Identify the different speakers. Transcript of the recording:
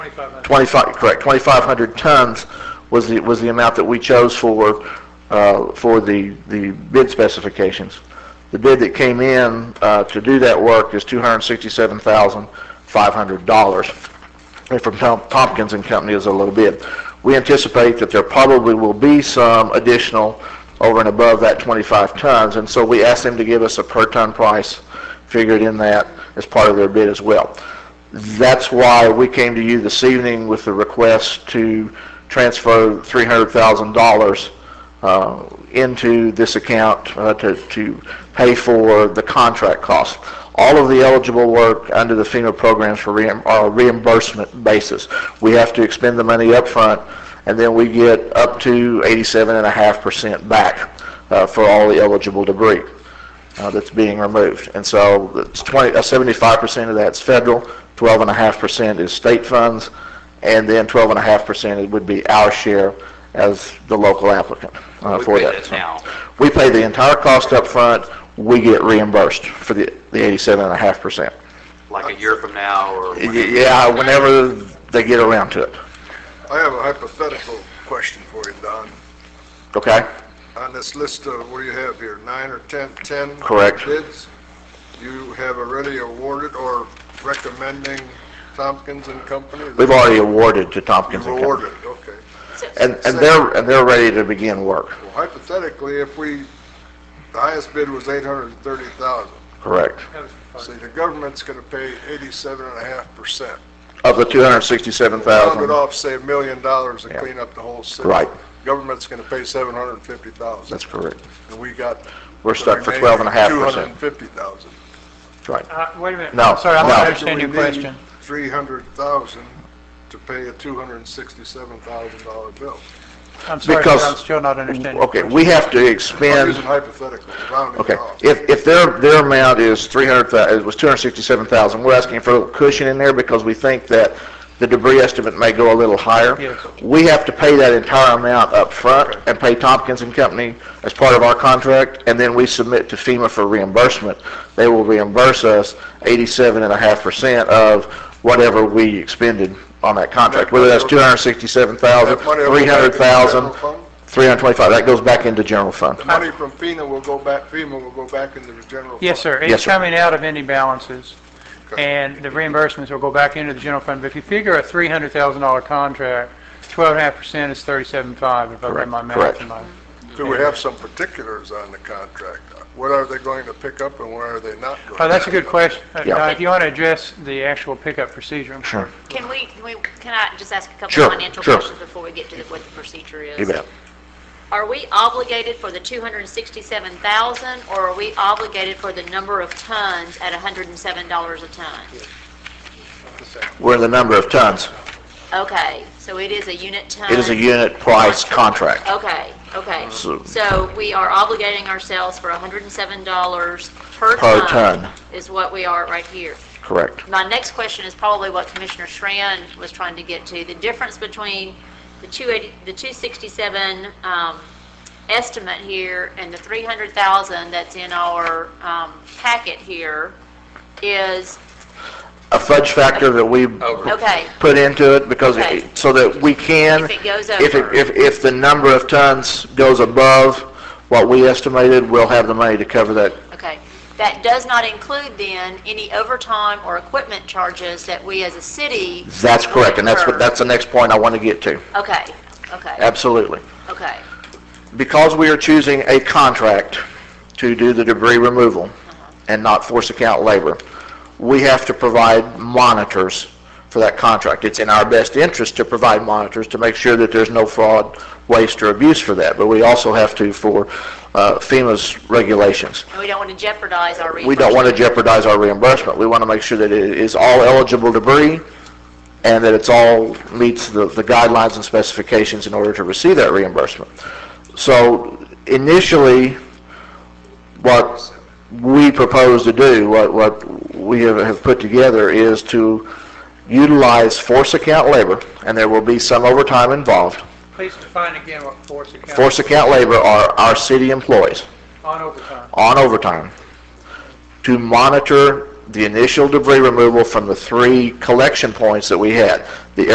Speaker 1: 2,500.
Speaker 2: 25, correct, 2,500 tons was the, was the amount that we chose for, uh, for the, the bid specifications. The bid that came in uh, to do that work is $267,500 and from Tom- Tompkins and Company is a low bid. We anticipate that there probably will be some additional over and above that 25 tons, and so we asked them to give us a per ton price figured in that as part of their bid as well. That's why we came to you this evening with the request to transfer $300,000 uh, into this account uh, to, to pay for the contract costs. All of the eligible work under the FEMA programs for reim- are reimbursement basis. We have to expend the money up front, and then we get up to 87.5% back uh, for all the eligible debris uh, that's being removed. And so it's 20, uh, 75% of that's federal, 12.5% is state funds, and then 12.5% would be our share as the local applicant uh,
Speaker 3: We
Speaker 2: for
Speaker 3: pay
Speaker 2: that.
Speaker 3: that now.
Speaker 2: We pay the entire cost up front. we get reimbursed for the the 87.5%.
Speaker 3: like a year from now or
Speaker 2: Y- Yeah, whenever they get around to it,
Speaker 4: I have a hypothetical question for you, Don.
Speaker 2: okay?
Speaker 4: On this list of, what do you have here, nine or 10, 10?
Speaker 2: Correct.
Speaker 4: Bids, you have already awarded or recommending Tompkins and Company?
Speaker 2: We've already awarded to
Speaker 4: You've
Speaker 2: Tompkins and Company.
Speaker 4: awarded, okay.
Speaker 2: And and they're, and they're ready to begin work,
Speaker 4: Well, hypothetically, if we, the highest bid was 830,000.
Speaker 2: correct?
Speaker 1: That was the
Speaker 4: See,
Speaker 1: first.
Speaker 4: the government's going to pay 87.5%.
Speaker 2: Of the
Speaker 4: Round it
Speaker 2: 267,000,
Speaker 4: off, say a million dollars to
Speaker 2: Yeah.
Speaker 4: clean up the whole city.
Speaker 2: Right.
Speaker 4: Government's going to pay 750,000.
Speaker 2: that's correct.
Speaker 4: And we got.
Speaker 2: We're
Speaker 4: the
Speaker 2: stuck for
Speaker 4: remaining
Speaker 2: 12.5%.
Speaker 4: 250,000.
Speaker 2: Right.
Speaker 1: Uh, Wait a minute.
Speaker 2: No,
Speaker 1: Sorry, I
Speaker 2: no.
Speaker 1: don't understand your
Speaker 4: We need
Speaker 1: question.
Speaker 4: 300,000 to pay a $267,000 bill.
Speaker 1: I'm sorry, but
Speaker 2: Because-
Speaker 1: I'm still not understanding.
Speaker 2: Okay, we have to
Speaker 4: I'm
Speaker 2: expend,
Speaker 4: using hypothetical, rounding
Speaker 2: okay,
Speaker 4: it off.
Speaker 2: if, if their, their amount is 300, it was 267,000, we're asking for a little cushion in there because we think that the debris estimate may go a little higher.
Speaker 1: Yes.
Speaker 2: We have to pay that entire amount up front and pay Tompkins and Company as part of our contract, and then we submit to FEMA for reimbursement. They will reimburse us 87.5% of whatever we expended on that contract, whether that's 267,000,
Speaker 4: That money will go back into the
Speaker 2: 300,000,
Speaker 4: general fund?
Speaker 2: 325, that goes back into general fund.
Speaker 4: The money from FEMA will go back, FEMA will go back into the general fund.
Speaker 1: Yes, sir.
Speaker 2: Yes,
Speaker 1: It's
Speaker 2: sir.
Speaker 1: coming out of ending balances,
Speaker 4: Okay.
Speaker 1: and the reimbursements will go back into the general fund. But if you figure a $300,000 contract, 12.5% is 37.5, if I've got
Speaker 2: Correct,
Speaker 1: my math
Speaker 2: correct.
Speaker 1: in mind.
Speaker 4: Do we have some particulars on the contract? What are they going to pick up and what are they not going to?
Speaker 1: Oh, that's a
Speaker 4: pick
Speaker 1: good
Speaker 4: up?
Speaker 1: question. Uh,
Speaker 2: Yeah.
Speaker 1: Now, if you want to address the actual pickup procedure. I'm
Speaker 2: Sure.
Speaker 5: Can we, can we, can I just ask a couple
Speaker 2: Sure,
Speaker 5: of financial
Speaker 2: sure.
Speaker 5: questions before we get to the- what the procedure is?
Speaker 2: You bet.
Speaker 5: Are we obligated for the 267,000, or are we obligated for the number of tons at $107 a ton?
Speaker 2: We're the number of tons.
Speaker 5: Okay, so it is a unit ton?
Speaker 2: It is a unit price contract.
Speaker 5: Okay, okay.
Speaker 2: So-
Speaker 5: So we are obligating ourselves for $107 per
Speaker 2: Per
Speaker 5: ton?
Speaker 2: ton.
Speaker 5: Is what we are right here.
Speaker 2: Correct.
Speaker 5: My next question is probably what Commissioner Schran was trying to get to, the difference between the 280, the 267 um, estimate here and the 300,000 that's in our um, packet here is,
Speaker 2: A fudge factor that we
Speaker 5: okay,
Speaker 2: put into it because, it-
Speaker 5: Okay.
Speaker 2: so that we can.
Speaker 5: If it goes
Speaker 2: if it-
Speaker 5: over.
Speaker 2: If, if the number of tons goes above what we estimated, we'll have the money to cover that.
Speaker 5: okay. That does not include then any overtime or equipment charges that we as a city.
Speaker 2: That's correct, and that's, what
Speaker 5: incur.
Speaker 2: that's the next point I want to get to.
Speaker 5: Okay, okay,
Speaker 2: Absolutely.
Speaker 5: okay,
Speaker 2: Because we are choosing a contract to do the debris removal and not force account labor, we have to provide monitors for that contract. It's in our best interest to provide monitors to make sure that there's no fraud, waste, or abuse for that, but we also have to for uh, FEMA's regulations.
Speaker 5: and we don't want to jeopardize our reimbursement.
Speaker 2: We don't want to jeopardize our reimbursement. We want to make sure that it is all eligible debris and that it's all meets the the guidelines and specifications in order to receive that reimbursement. So initially, what we propose to do, what, what we have, have put together is to utilize force account labor, and there will be some overtime involved.
Speaker 1: Please define again what force account.
Speaker 2: Force account labor are our city employees
Speaker 1: On overtime.
Speaker 2: on overtime to monitor the initial debris removal from the three collection points that we had. The